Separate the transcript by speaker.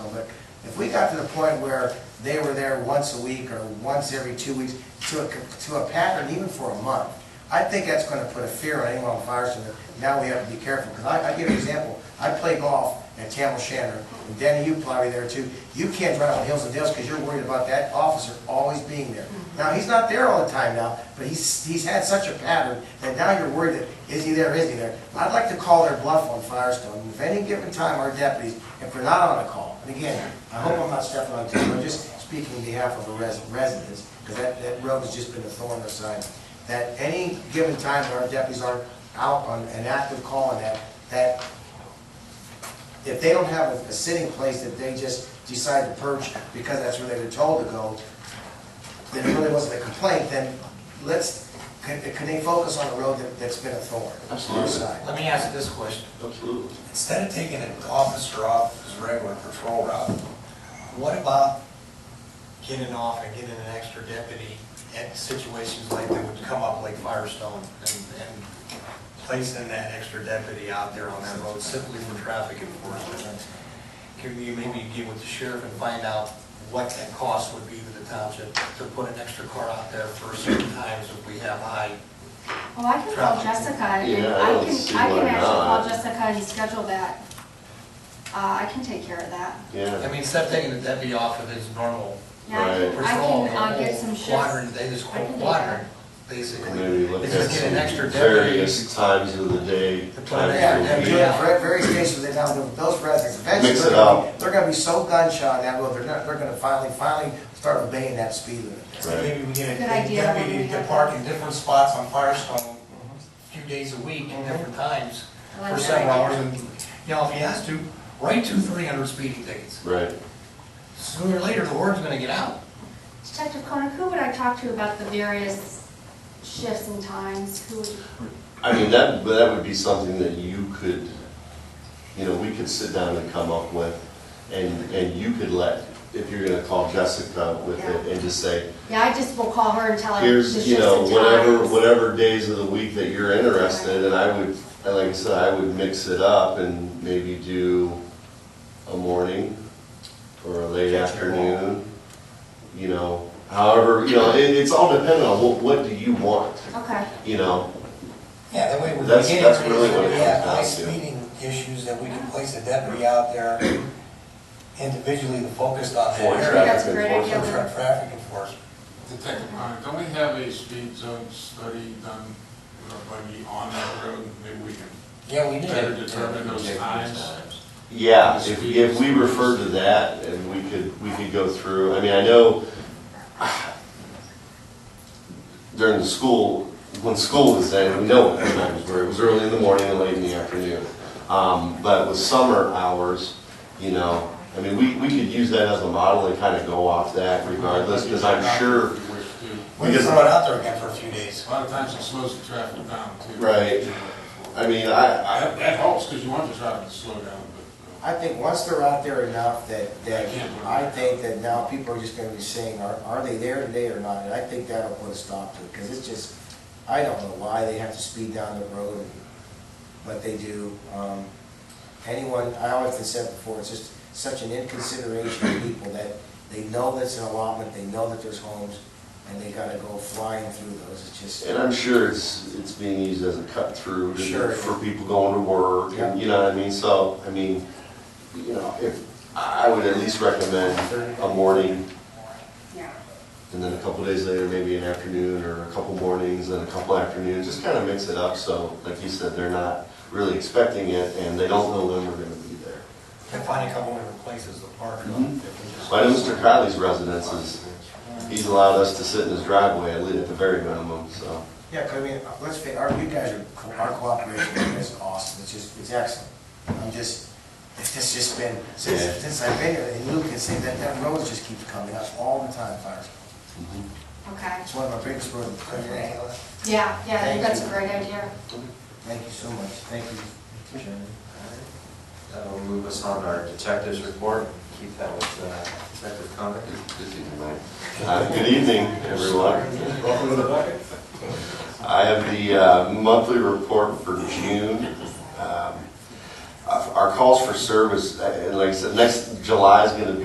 Speaker 1: we got to the point where they were there once a week or once every two weeks to a, to a pattern even for a month. I think that's gonna put a fear on anyone on Firestone, that now we have to be careful, because I, I give you an example, I play golf at Tam O'Shanter, and Danny, you probably there too, you can't drive on hills and dales because you're worried about that officer always being there. Now, he's not there all the time now, but he's, he's had such a pattern, that now you're worried that, is he there, is he there? I'd like to call their bluff on Firestone, and if any given time, our deputies, if we're not on a call, and again, I hope I'm not stepping on toes, I'm just speaking on behalf of the res- residents, because that, that road has just been a thorn in their side, that any given time when our deputies aren't out on an active call and that, that if they don't have a a sitting place that they just decide to perch because that's where they were told to go, then it really wasn't a complaint, then let's, can, can they focus on a road that, that's been a thorn? on their side?
Speaker 2: Let me ask this question.
Speaker 3: Absolutely.
Speaker 2: Instead of taking an officer off his regular patrol route, what about getting off and getting an extra deputy at situations like that would come up like Firestone and, and placing that extra deputy out there on that road simply for traffic enforcement? Can you maybe get with the sheriff and find out what that cost would be to the township to put an extra car out there for certain times if we have high
Speaker 4: Well, Oh, I can call
Speaker 2: Traffic.
Speaker 4: Jessica, and
Speaker 3: Yeah, I
Speaker 4: I
Speaker 3: don't
Speaker 4: can,
Speaker 3: see
Speaker 4: I can
Speaker 3: why
Speaker 4: actually call
Speaker 3: not.
Speaker 4: Jessica and schedule that. Uh, I can take care of that.
Speaker 2: I
Speaker 3: Yeah.
Speaker 2: mean, instead of taking the deputy off of his normal
Speaker 4: Yeah, I can,
Speaker 3: Right.
Speaker 4: I
Speaker 2: patrol,
Speaker 4: can, uh, get
Speaker 2: normal
Speaker 4: some shifts.
Speaker 2: quadrant, they just
Speaker 4: I can do
Speaker 2: quadrant, basically.
Speaker 3: Maybe look
Speaker 2: They
Speaker 3: at
Speaker 2: just get an
Speaker 3: some
Speaker 2: extra deputy.
Speaker 3: various times of the day,
Speaker 2: To put an
Speaker 3: times
Speaker 1: Yeah,
Speaker 3: of
Speaker 1: and
Speaker 3: the
Speaker 1: do
Speaker 3: week.
Speaker 1: it for various stations in town, those residents, eventually,
Speaker 3: Mix
Speaker 1: they're
Speaker 3: it
Speaker 1: gonna,
Speaker 3: up.
Speaker 1: they're gonna be so gunshot on that road, they're not, they're gonna finally, finally start obeying that speed limit.
Speaker 3: Right.
Speaker 2: Maybe we get
Speaker 4: Good
Speaker 2: a
Speaker 4: idea.
Speaker 2: deputy to park in different spots on Firestone
Speaker 5: Mm-hmm.
Speaker 2: a few days a week, at different times,
Speaker 4: Mm-hmm. I like
Speaker 2: for
Speaker 4: that
Speaker 2: several hours.
Speaker 4: idea.
Speaker 2: And, you know, if he has to, write two three hundred speeding tickets.
Speaker 3: Right.
Speaker 2: Sooner or later, the word's gonna get out.
Speaker 4: Detective Koenig, who would I talk to about the various shifts and times? Who, would-
Speaker 3: I mean, that, but that would be something that you could, you know, we could sit down and come up with, and, and you could let, if you're gonna call Jessica with it, and just say,
Speaker 4: yeah, I just will call her and tell her the
Speaker 3: here's,
Speaker 4: shifts
Speaker 3: you know,
Speaker 4: and
Speaker 3: whatever,
Speaker 4: times.
Speaker 3: whatever days of the week that you're interested, and I would, and like I said, I would mix it up and maybe do a morning or a late afternoon, you know, however, you know, it, it's all dependent on what, what do you want,
Speaker 4: Okay,
Speaker 3: you know?
Speaker 5: Yeah, that way we're
Speaker 3: That's-
Speaker 5: getting,
Speaker 3: that's really what it
Speaker 5: we have high
Speaker 3: comes down to.
Speaker 5: speeding issues, that we can place a deputy out there individually focused on
Speaker 3: For
Speaker 5: that area.
Speaker 4: that's a great
Speaker 5: For
Speaker 4: idea.
Speaker 5: tra- traffic enforcement.
Speaker 6: Detective Connor, don't we have a speed zone study done, uh, maybe on that road, maybe we can
Speaker 5: Yeah, we
Speaker 6: better
Speaker 5: did.
Speaker 6: determine those times?
Speaker 3: Yeah, if, if we refer to that and we could, we could go through, I mean, I know during the school, when school was there, we know what times were, it was early in the morning and late in the afternoon. Um, but with summer hours, you know, I mean, we, we could use that as a model and kind of go off that regardless, because I'm sure,
Speaker 6: If we wish to.
Speaker 5: We can throw it out there again for a few days.
Speaker 6: A lot of times it slows the traffic down too.
Speaker 3: Right. I mean, I, I,
Speaker 6: That, that helps, because you want the traffic to slow down, but.
Speaker 1: I
Speaker 6: uh,
Speaker 1: think once they're out there enough that, that,
Speaker 6: I can't believe
Speaker 1: I
Speaker 6: it.
Speaker 1: think that now people are just gonna be saying, are, are they there today or not? And I think that'll put a stop to it, because it's just, I don't know why they have to speed down the road, and- but they do. Um, Anyone, I always have said before, it's just such an inconsideration of people that they know that's an allotment, they know that there's homes, and they gotta go flying through those, it's just.
Speaker 3: and I'm sure it's, it's being used as a cut through to-
Speaker 1: Sure.
Speaker 3: for people going to work and, you know what I mean? So, I mean, you know, if, I would at least recommend a morning
Speaker 4: Yeah.
Speaker 3: And then a couple days later, maybe an afternoon or a couple mornings and a couple afternoons, just kind of mix it up so, like you said, they're not really expecting it and they don't know when we're gonna be there.
Speaker 2: And find a couple different places to park. if
Speaker 3: Mhm.
Speaker 2: we just-
Speaker 3: I know Mr. Crowley's residence is, he's allowed us to sit in his driveway at least at the very minimum, so.
Speaker 1: Yeah, 'cause I mean, uh, let's face, our, you guys are, co- our cooperation with you guys is awesome, it's just, it's excellent. I'm just, it's just, just been, since,
Speaker 3: Yeah.
Speaker 1: since I've been here, and Luke can say that, that road just keeps coming up all the time, fires.
Speaker 4: okay.
Speaker 1: It's one of our biggest roads. in the country.
Speaker 4: Yeah, yeah, I think
Speaker 1: Thank
Speaker 4: that's a
Speaker 1: you.
Speaker 4: great idea.
Speaker 1: Thank you so much, thank you, Chairman.
Speaker 7: That'll move us on to our detectives report, keep that with uh, Detective Connick.
Speaker 3: Uh, Good evening, everyone. I have the uh, monthly report for June. uh, Um, Our our calls for service, uh, like I said, next July is going to be.